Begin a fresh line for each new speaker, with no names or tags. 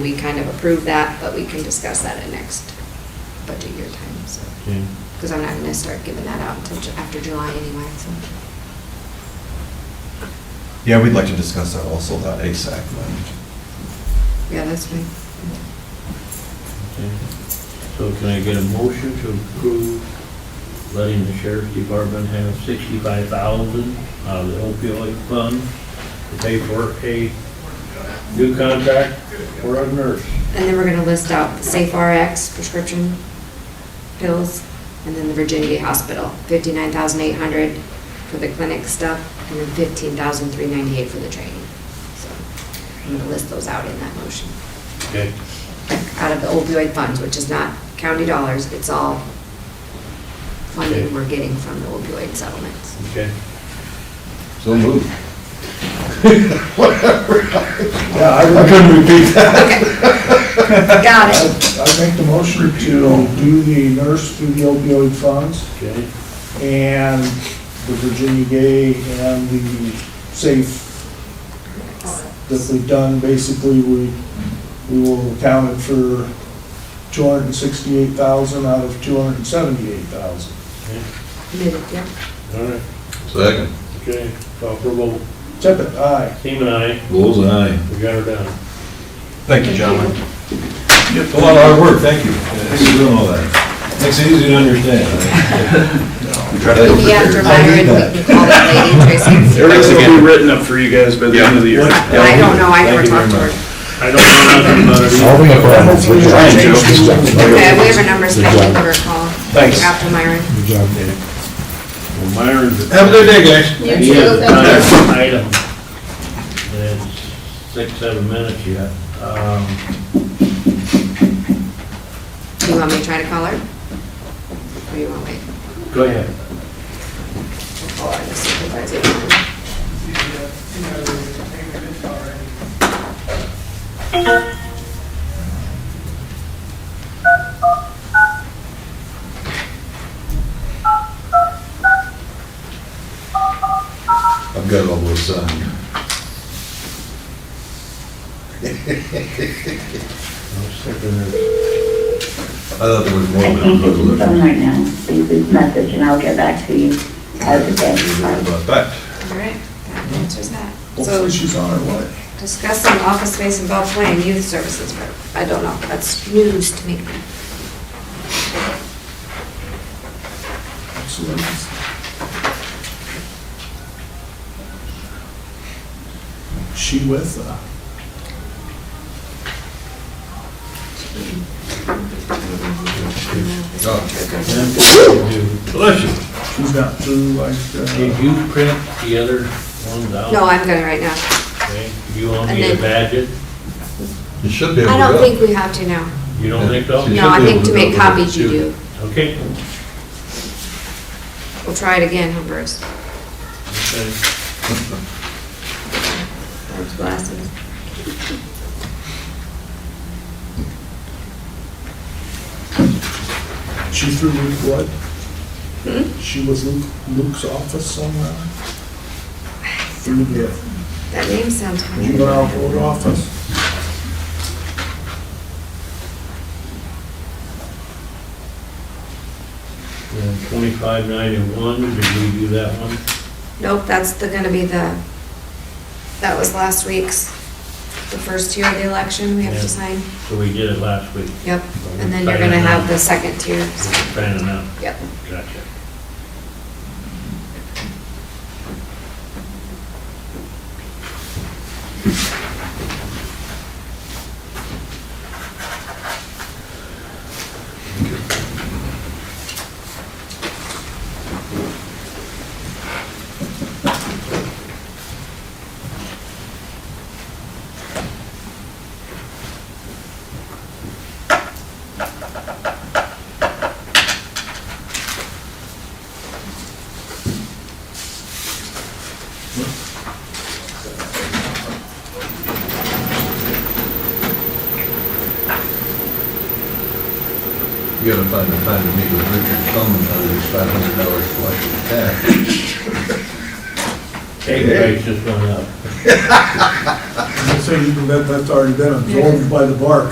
We kind of approved that, but we can discuss that at next budget year time, so.
Okay.
Because I'm not gonna start giving that out until ju- after July anyway, so.
Yeah, we'd like to discuss that also, that ASAC money.
Yeah, that's fine.
Okay. So can I get a motion to approve letting the sheriff's department have sixty-five thousand out of the opioid fund to pay for a new contract for a nurse?
And then we're gonna list out the Safe RX prescription pills, and then the Virginity Hospital, fifty-nine thousand eight hundred for the clinic stuff, and then fifteen thousand three ninety-eight for the training. So I'm gonna list those out in that motion,
Okay.
out of the opioid funds, which is not county dollars, it's all funding
Okay.
we're getting from the opioid settlements.
Okay.
So moved.
Yeah, I
I
would,
couldn't repeat that.
Got it.
I'd make the motion to do the nurse through the opioid funds
Okay.
and the Virginia Gay and the safe that we've done, basically, we, we will account it for two hundred and sixty-eight thousand out of two hundred and seventy-eight thousand.
Yeah.
All right.
Second.
Okay. Call for vote.
Tippit, aye.
Team and I,
Bullseye.
we got her done.
Thank you, gentlemen. It's a lot of hard work, thank you. Thanks for doing all that. Makes it easy to understand.
We'll be after Myron, we can call that lady, Tracy.
Everything will be written up for you guys by the end of the year.
I don't know, I never
Thank you
talked to her.
very much.
I don't know nothing about
All we have on is
Hopefully,
Try and
change
joke.
these things.
Okay, we have her numbers, I can give her a call.
Thanks.
After Myron.
the job.
it. Myron's.
Have a good day, guys.
You too. Item. It's six, seven minutes yet. Um,
Do you want me to try to call her? Or you want me
Go ahead.
to call her, the supervisor?
I've got all those uh, signed.
I was thinking there's-
I thought there was more.
I
than
can't get to the
I
phone right now. Leave this message and I'll get back to you as a
was
day.
worried about that.
All right, that answers that. So
Hopefully, she's on her way.
discussing office space in Belle Plaine, youth services, but I don't know, that's news to me.
Absolutely. She with, uh,
Oh.
Bless you.
she's not through like,
Did
uh,
you print the other ones out?
No, I'm gonna right now.
Okay. You want me
And then-
to badge it?
You should be able
I
to.
don't think we have to now.
You don't think so?
You
No, I
should be
think
able
to
to
make
go over
copies you
to-
do.
Okay.
We'll try it again, huh, Bruce?
Okay.
Those glasses.
she through Luke what? She was Luke, Luke's office somewhere? Through the,
That name sounds
you
familiar.
go out to her office?
And twenty-five ninety-one, did we do that one?
Nope, that's the, gonna be the, that was last week's, the first tier of the election we have
Yeah.
to sign.
So we did it last week.
Yep, and then you're gonna have the second tier, so,
Fanning out.
yep.
Gotcha.
You gotta find the time to meet with Richard Coleman, there's five hundred dollars collected tax.
Egg price just went up.
So you can bet that's already been absorbed by the bark.